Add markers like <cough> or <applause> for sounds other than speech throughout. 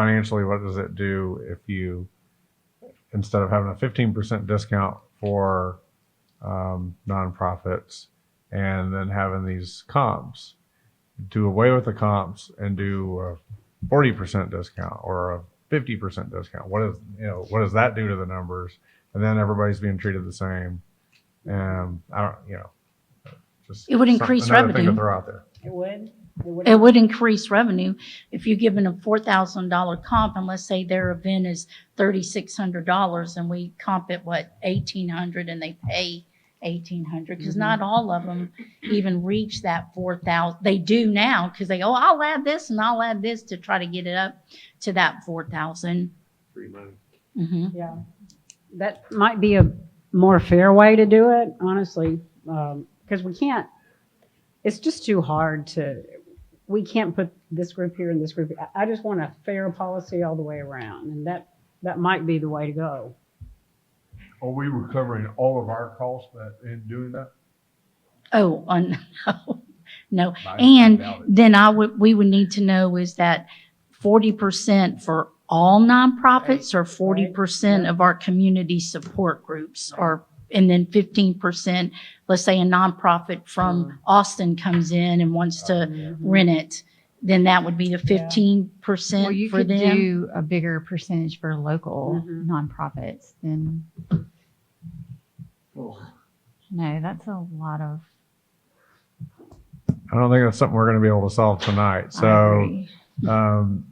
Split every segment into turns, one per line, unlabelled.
financially, what does it do if you, instead of having a 15% discount for um, nonprofits and then having these comps, do away with the comps and do a 40% discount or a 50% discount? What is, you know, what does that do to the numbers? And then everybody's being treated the same. And I don't, you know, just
It would
some-
increase
another Thing
revenue.
that they're out there.
It would?
It would increase revenue if you're given a four thousand dollar comp, and let's say their event is thirty-six hundred dollars, and we comp it, what, eighteen hundred, and they pay eighteen hundred, because not all of them even reach that four thousand, they do now, because they go, I'll add this and I'll add this to try to get it up to that four thousand.
free money.
Mm-hmm.
Yeah. That might be a more fair way to do it, honestly, because we can't, it's just too hard to, we can't put this group here and this group. I- I just want a fair policy all the way around, and that, that might be the way to go.
Are we recovering all of our costs that, in doing that?
Oh, <laughs> on, no,
I- I
And
doubt it.
then I would, we would need to know is that forty percent for all nonprofits or forty percent of our community support groups or, and then fifteen percent, let's say a nonprofit
Mm-hmm.
from Austin comes in and wants to
Mm-hmm.
rent it, then that would be the fifteen
Well,
percent
you
for
could
them.
do a bigger percentage for local
Mhm.
nonprofits than. No, that's a lot of.
I don't think that's something we're going to be able to solve tonight.
I
So
agree.
Um,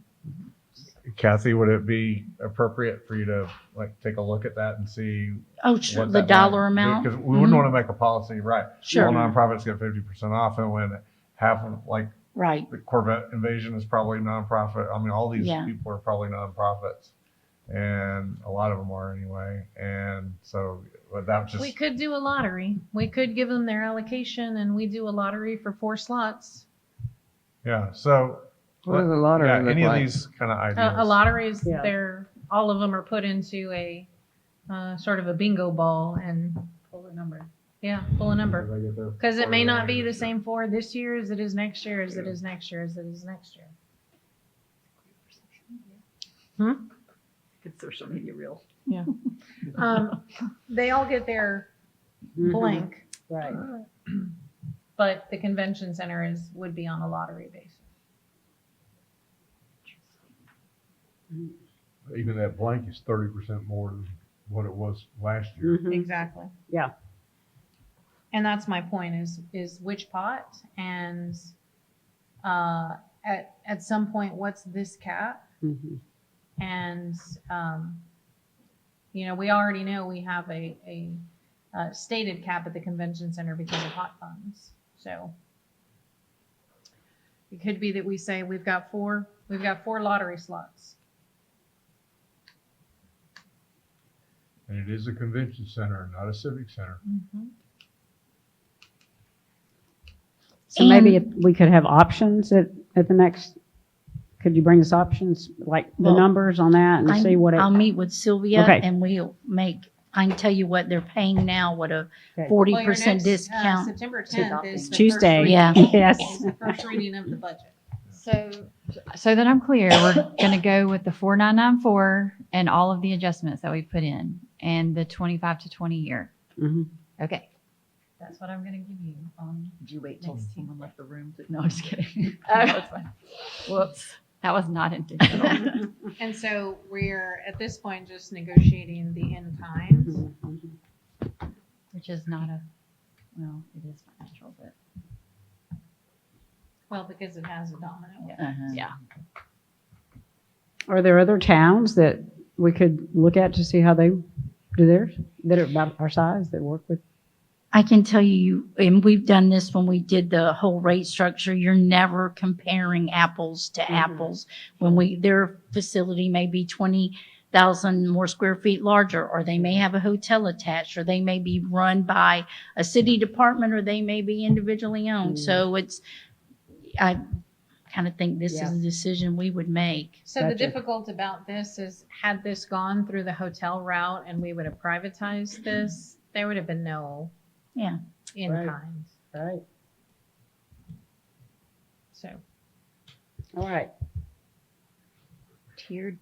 Kathy, would it be appropriate for you to like take a look at that and see
Oh, sure, the dollar amount,
Because we wouldn't
Mhm.
want to make a policy, right? All
sure,
nonprofits get fifty percent off, and when half of like
right.
the Corvette Invasion is probably nonprofit. I mean, all these
Yeah.
people are probably nonprofits, and a lot of them are anyway. And so, but that was just
We could do a lottery. We could give them their allocation and we do a lottery for four slots.
yeah. So uh,
What does a lottery
yeah,
look
any of
like?
these kind of ideas?
A, a lottery is
Yeah.
there, all of them are put into a, uh, sort of a bingo ball and pull a number. Yeah, pull a number. Cause it may not be the same four this year as it is next year, as it is next year, as it is next year. Hmm?
Good social media reel.
Um, they all get their blank,
Right.
but the convention center is, would be on a lottery basis.
Even that blank is thirty percent more than what it was last year.
Mhm.
Exactly.
Yeah.
And that's my point is, is which pot and, uh, at, at some point, what's this cap?
Mhm.
And, um, you know, we already know we have a, a, uh, stated cap at the convention center because of hot funds, so. It could be that we say we've got four, we've got four lottery slots.
And it is a convention center, not a civic center.
Mm-hmm.
So maybe
And-
if we could have options at, at the next, could you bring us options, like the
Well,
numbers on that and
I'm-
see what it?
I'll meet with Sylvia
Okay.
and we'll make, I can tell you what they're paying now, what a
Okay.
forty
Well, your
percent
next, uh,
discount.
September
to
10th
adopting.
is the first
Tuesday.
reading.
Yeah.
Yes.
It's the first reading of the budget.
So, so that I'm clear, <coughs> we're going to go with the 4994 and all of the adjustments that we put in and the 25 to 20 year.
<laughs>
Mhm.
Okay.
That's what I'm gonna give you on.
Did you wait till
Next
someone left the room? to- No, I'm just kidding.
<laughs> Oh.
No, it's fine.
Whoops. That was not
<laughs>
intentional.
Mm-hmm.
And so we're, at this point, just negotiating the in
Mm-hmm.
kind.
Which is not a, well, it is financial, but
Well, because it has a domino.
Uh-huh.
yeah.
Are there other towns that we could look at to see how they do theirs, that are about our size, that work with?
I can tell you, and we've done this when we did the whole rate structure, you're never comparing apples to
Mhm.
apples. When we, their facility may be twenty thousand more square feet larger, or they may have a hotel attached, or they may be run by a city department, or they may be individually owned.
Mm.
So it's, I kind of think this is
Yeah.
a decision we would make.
So the
Gotcha.
difficult about this is had this gone through the hotel route and we would have privatized this, there would have been no.
Yeah.
In
Right.
kind,
Right.
so.
All right.
tiered